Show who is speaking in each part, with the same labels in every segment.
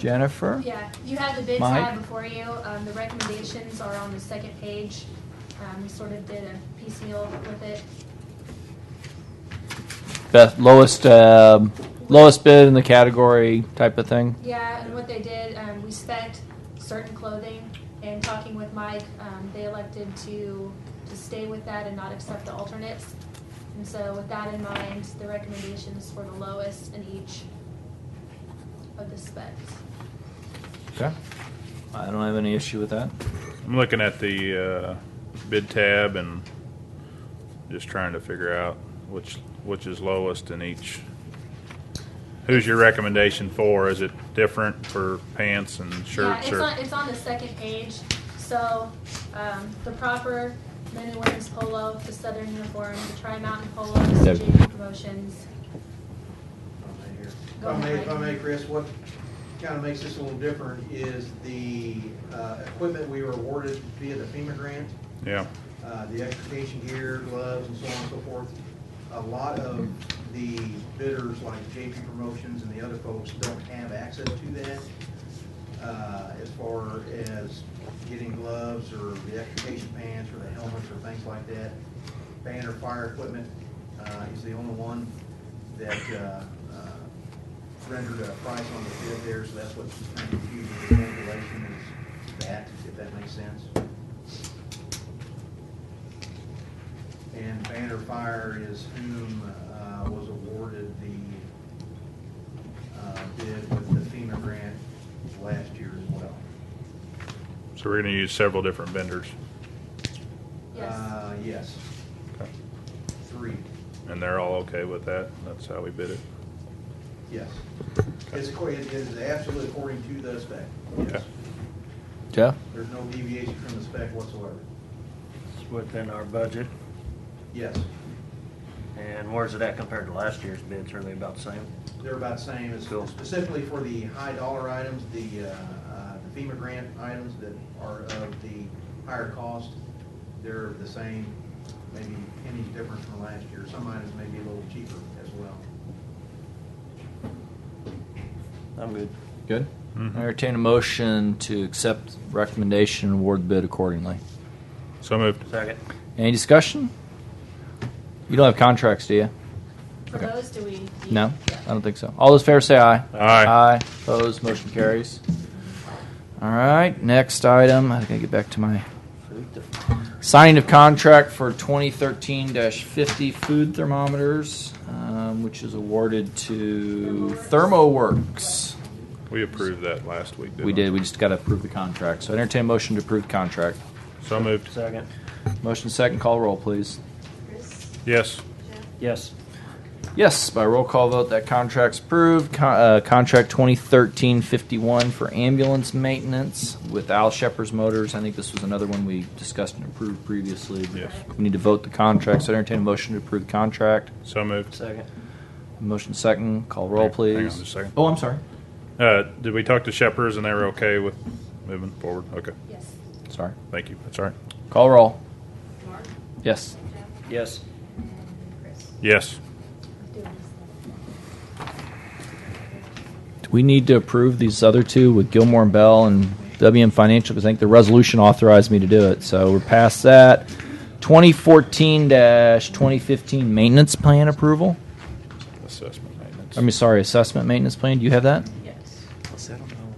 Speaker 1: Jennifer?
Speaker 2: Yeah, you have the bid
Speaker 1: Mike?
Speaker 2: tab before you. Um, the recommendations are on the second page. Um, we sort of did a piecemeal with it.
Speaker 1: Best, lowest, um, lowest bid in the category type of thing?
Speaker 2: Yeah, and what they did, um, we spent certain clothing and talking with Mike, um, they elected to, to stay with that and not accept the alternates. And so with that in mind, the recommendations were the lowest in each of the specs.
Speaker 1: Okay. I don't have any issue with that.
Speaker 3: I'm looking at the uh, bid tab and just trying to figure out which which is lowest in each. Who's your recommendation for? Is it different for pants and
Speaker 2: Yeah,
Speaker 3: shirts
Speaker 2: it's
Speaker 3: or?
Speaker 2: on, it's on the second page, so, um, the proper men and women's polo, the southern uniform, the tri-mountain polo, the
Speaker 1: Yep.
Speaker 2: JV promotions.
Speaker 4: If
Speaker 2: Go
Speaker 4: I may,
Speaker 2: ahead,
Speaker 4: if I
Speaker 2: Mike.
Speaker 4: may, Chris, what kind of makes this a little different is the uh, equipment we were awarded via the FEMA grant,
Speaker 3: Yeah,
Speaker 4: uh, the extrication gear, gloves, and so on and so forth. A lot of the bidders, like JP Promotions and the other folks, don't have access to that uh, as far as getting gloves or the extrication pants or the helmets or things like that. Banner fire equipment uh, is the only one that uh, uh, rendered a price on the bid there, so that's what's kind of confusing the calculation is that, if that makes sense. And Banner Fire is whom uh, was awarded the uh, bid with the FEMA grant last year as well.
Speaker 3: so we're gonna use several different vendors,
Speaker 2: Yes,
Speaker 4: Uh, Yes,
Speaker 3: Okay.
Speaker 4: three,
Speaker 3: and they're all okay with that. That's how we bid it.
Speaker 4: yes. It's according, it is absolutely according to the spec, yes.
Speaker 3: Okay.
Speaker 1: Jeff?
Speaker 4: There's no deviation from the spec whatsoever,
Speaker 5: It's within our budget,
Speaker 4: yes.
Speaker 5: and where's it at compared to last year's bids, are they about the same?
Speaker 4: They're about the same, as
Speaker 5: Cool.
Speaker 4: specifically for the high dollar items, the uh, uh, the FEMA grant items that are of the higher cost, they're the same, maybe pennies different from last year, some items may be a little cheaper as well.
Speaker 5: I'm good.
Speaker 1: Good.
Speaker 3: Mhm.
Speaker 1: I entertain a motion to accept recommendation and award bid accordingly.
Speaker 3: So moved.
Speaker 5: Second.
Speaker 1: Any discussion? You don't have contracts, do you?
Speaker 2: for
Speaker 1: okay.
Speaker 2: those, do we? do-
Speaker 1: No? Um,
Speaker 2: Yeah.
Speaker 1: I don't think so. All those fair say aye.
Speaker 3: Aye.
Speaker 1: Aye. Opposed, motion carries. All right, next item, I gotta get back to my Signing of contract for 2013-50 food thermometers, um, which is awarded to ThermoWorks.
Speaker 3: We approved that last week.
Speaker 1: We did. We just got to approve the contract. So I entertain a motion to approve the contract.
Speaker 3: So moved.
Speaker 5: Second.
Speaker 1: Motion second. Call roll, please.
Speaker 6: Chris,
Speaker 3: Yes.
Speaker 6: Jeff,
Speaker 5: Yes.
Speaker 1: Yes, by roll call vote, that contract's approved. Con- uh, contract 2013-51 for ambulance maintenance with Al Shepherd's Motors. I think this was another one we discussed and approved previously.
Speaker 3: Yes.
Speaker 1: We need to vote the contract. So I entertain a motion to approve the contract.
Speaker 3: So moved.
Speaker 5: Second.
Speaker 1: Motion second. Call roll,
Speaker 3: Hang- hang
Speaker 1: please.
Speaker 3: on just a second.
Speaker 1: Oh, I'm sorry.
Speaker 3: Uh, did we talk to Shepherd's and they were okay with moving forward? Okay,
Speaker 2: Yes.
Speaker 1: Sorry.
Speaker 3: thank you. That's all right.
Speaker 1: Call roll.
Speaker 6: Mark,
Speaker 1: Yes.
Speaker 6: Jeff,
Speaker 5: Yes.
Speaker 6: and Chris.
Speaker 3: Yes.
Speaker 2: I'm doing this.
Speaker 1: Do we need to approve these other two with Gilmore and Bell and WM Financial? Because I think the resolution authorized me to do it. So we're past that. 2014 2015 maintenance plan approval.
Speaker 3: Assessment maintenance.
Speaker 1: I mean, sorry, assessment maintenance plan. Do you have that?
Speaker 7: Yes.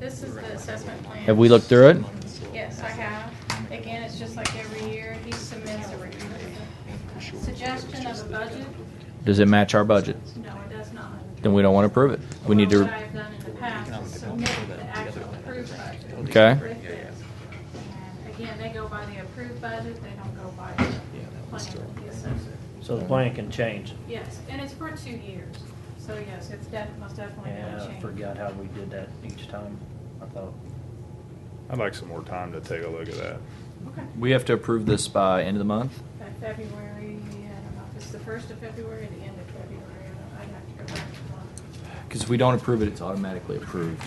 Speaker 7: This is the assessment plan.
Speaker 1: Have we looked through it?
Speaker 7: Yes, I have. Again, it's just like every year, he submits a re- suggestion of a budget.
Speaker 1: Does it match our budget?
Speaker 7: No, it does not.
Speaker 1: Then we don't want to approve it. We need
Speaker 7: What I
Speaker 1: to.
Speaker 7: have done in the past is submit the actual approved budget.
Speaker 1: Okay.
Speaker 7: with this. And Again, they go by the approved budget, they don't go by the plan, the assessment.
Speaker 5: So the plan can change.
Speaker 7: Yes, and it's for two years, so yes, it's definitely, most definitely
Speaker 5: Yeah,
Speaker 7: gonna
Speaker 5: I
Speaker 7: change.
Speaker 5: forgot how we did that each time, I thought.
Speaker 3: I'd like some more time to take a look at that.
Speaker 7: Okay.
Speaker 1: We have to approve this by end of the month.
Speaker 7: By February, I don't know, if it's the first of February, or the end of February, I don't know. I'd have to go back and look.
Speaker 1: Because if we don't approve it, it's automatically approved.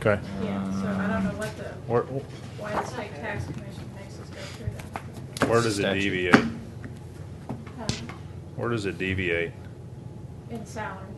Speaker 3: Okay.
Speaker 7: Yeah, so I don't know what the,
Speaker 3: Where,
Speaker 7: why the state tax commission makes us go through that.
Speaker 3: where does it
Speaker 1: Statute.
Speaker 3: deviate?
Speaker 7: Um,
Speaker 3: Where does it deviate?
Speaker 7: In salary,